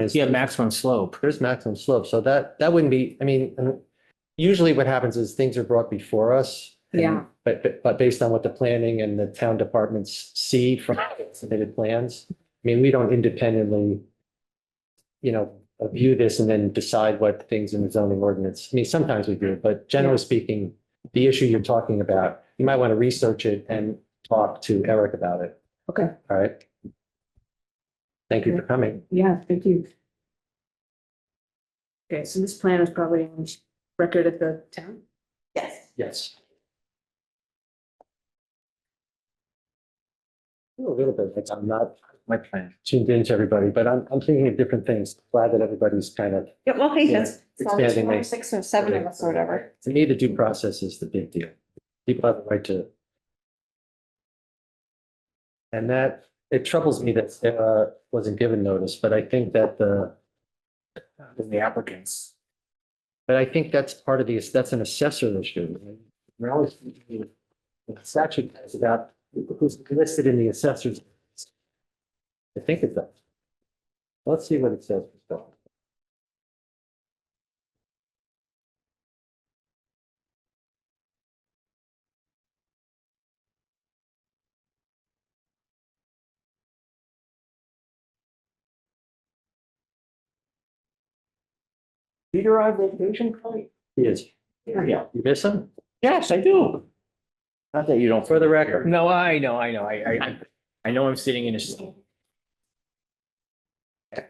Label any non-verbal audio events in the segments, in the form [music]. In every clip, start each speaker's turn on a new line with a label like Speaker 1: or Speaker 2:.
Speaker 1: is-
Speaker 2: Yeah, maximum slope.
Speaker 1: There's maximum slope, so that, that wouldn't be, I mean, and usually what happens is things are brought before us. and-
Speaker 3: Yeah.
Speaker 1: But, but- but based on what the planning and the town departments see from submitted plans, I mean, we don't independently, you know, view this and then decide what things in the zoning ordinance, I mean, sometimes we do, but generally speaking, the issue you're talking about, you might want to research it and talk to Eric about it,
Speaker 3: Okay,
Speaker 1: all right? Thank you for coming.
Speaker 3: yeah, thank you. Okay, so this plan is probably on record at the town? Yes.
Speaker 1: Yes. A little bit, but I'm not, my plan tuned into everybody, but I'm, I'm thinking of different things. Glad that everybody's kind of,
Speaker 4: Yeah, well, hey,
Speaker 1: Yeah,
Speaker 4: that's
Speaker 1: it's
Speaker 4: so
Speaker 1: fair
Speaker 4: there's
Speaker 1: they
Speaker 4: five,
Speaker 1: make-
Speaker 4: six or seven of us or whatever.
Speaker 1: to me, the due process is the big deal. People have the right to. And that, it troubles me that Sarah wasn't given notice, but I think that the,
Speaker 2: The applicants.
Speaker 1: but I think that's part of the, that's an assessor issue. We're always, the statute is about who's listed in the assessors. I think it's that. Let's see what it says. for Phil.
Speaker 2: Peter on vacation, Clay?
Speaker 1: He is.
Speaker 2: Yeah.
Speaker 1: You miss him?
Speaker 2: Yes, I do. Not that you don't.
Speaker 1: For the record.
Speaker 2: No, I know, I know. I, I, I know I'm sitting in a. seat.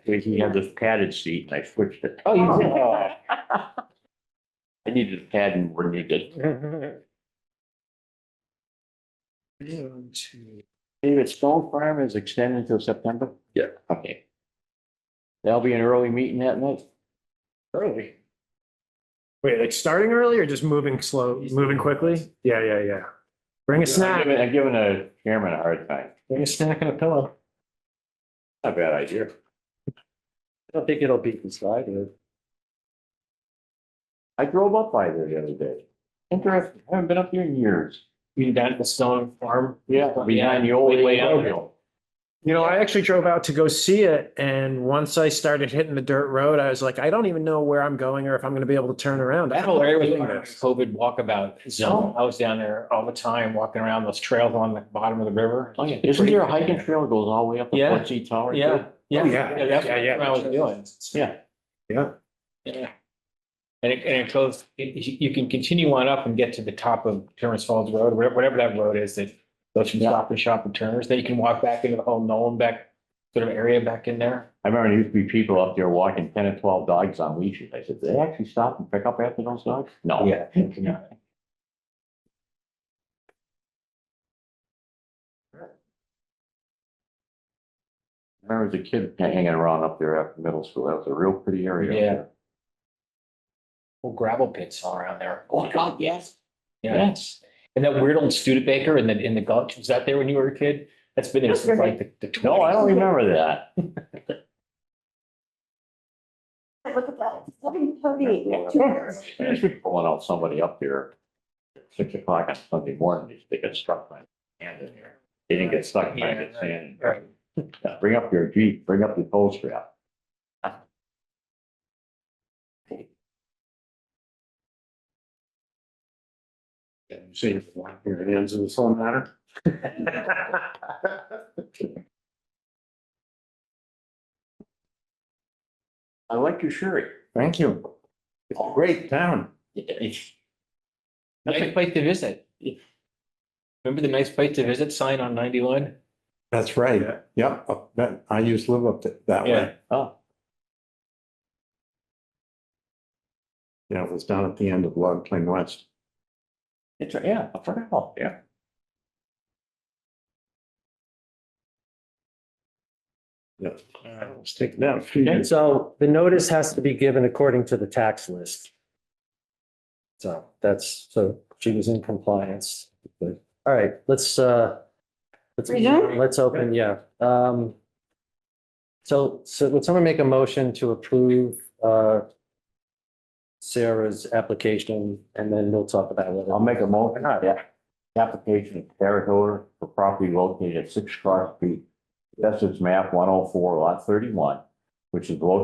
Speaker 5: He had this padded seat and I switched it.
Speaker 2: Oh, you did.
Speaker 5: I needed a pad and we're needed.
Speaker 2: [laughs]
Speaker 5: David Stone Farm is extended until September?
Speaker 1: Yeah.
Speaker 5: Okay. That'll be an early meeting that night?
Speaker 2: Early. Wait, like starting early or just moving slow, moving quickly? Yeah, yeah, yeah. Bring a
Speaker 5: I'm
Speaker 2: snack,
Speaker 5: giving- I'm giving a chairman a hard time.
Speaker 2: bring a snack and a pillow.
Speaker 5: Not a bad idea.
Speaker 1: I don't think it'll be decided.
Speaker 5: I drove up by there the other day. Interesting. I haven't been up here in years.
Speaker 2: You down at the stone farm?
Speaker 5: Yeah. Behind the old.
Speaker 2: Way out.
Speaker 5: Roadkill.
Speaker 6: You know, I actually drove out to go see it, and once I started hitting the dirt road, I was like, I don't even know where I'm going or if I'm gonna be able to turn around.
Speaker 2: That whole area was like a COVID walkabout zone. I was down there all the time, walking around those trails on the bottom of the river.
Speaker 5: Oh, yeah. Isn't there a hiking trail that goes all the way up to
Speaker 2: Yeah.
Speaker 5: Fletchy
Speaker 1: Oh,
Speaker 5: Tower? too?
Speaker 2: Yeah, yeah,
Speaker 6: yeah.
Speaker 2: yeah, that's
Speaker 6: Yeah, yeah.
Speaker 2: what I was doing.
Speaker 5: Yeah.
Speaker 2: Yeah. And it, and it goes, it- you you can continue on up and get to the top of Terrence Falls Road, whatever, whatever that road is that goes from
Speaker 5: Yeah.
Speaker 2: Stop and Shop and Turner's, then you can walk back into the whole Nolan back sort of area back in there.
Speaker 5: I remember there used to be people up there walking ten and twelve dogs on leashes. I said, "Do they actually stop and pick up after those dogs? No.
Speaker 2: Yeah.
Speaker 5: I remember as a kid hanging around up there after middle school. That was a real pretty area. up
Speaker 2: Yeah.
Speaker 5: there.
Speaker 2: Whole gravel pits all around there.
Speaker 5: Oh, God, yes.
Speaker 2: Yeah. And that weird old Studebaker in the, in the gulch, was that there when you were a kid? That's been there since like the- the twenties.
Speaker 5: No, I don't remember that.
Speaker 4: Look at that, seven thirty.
Speaker 5: I was Pulling out somebody up there at six o'clock on Sunday morning. They got struck by sand in there. They didn't get stuck by the
Speaker 2: Yeah, right,
Speaker 5: sand.
Speaker 2: right.
Speaker 5: Yeah, Bring up your Jeep, bring up the tow strap.
Speaker 6: See if your hands in the soul matter.
Speaker 5: I like your shirt. Thank you. It's a great town.
Speaker 2: Nice place to visit. Remember the nice place to visit sign on ninety-one?
Speaker 7: That's right. Yep. Up that- I used to live up th- that
Speaker 2: Yeah.
Speaker 7: way.
Speaker 5: Oh,
Speaker 7: Yeah, it was down at the end of Log Plain West.
Speaker 5: it's, yeah, I forgot, yeah.
Speaker 7: It's taken down a few
Speaker 1: And
Speaker 7: years.
Speaker 1: so the notice has to be given according to the tax list. So that's, so she was in compliance. All right, let's, uh, let's,
Speaker 4: Resume?
Speaker 1: let's open, yeah. Um, so, so would someone make a motion to approve, uh, Sarah's application and then we'll talk about it.
Speaker 5: I'll make a motion, yeah. Application of Terra Hilder for property located at six Cross Street. That's its map one oh four lot thirty-one, which is located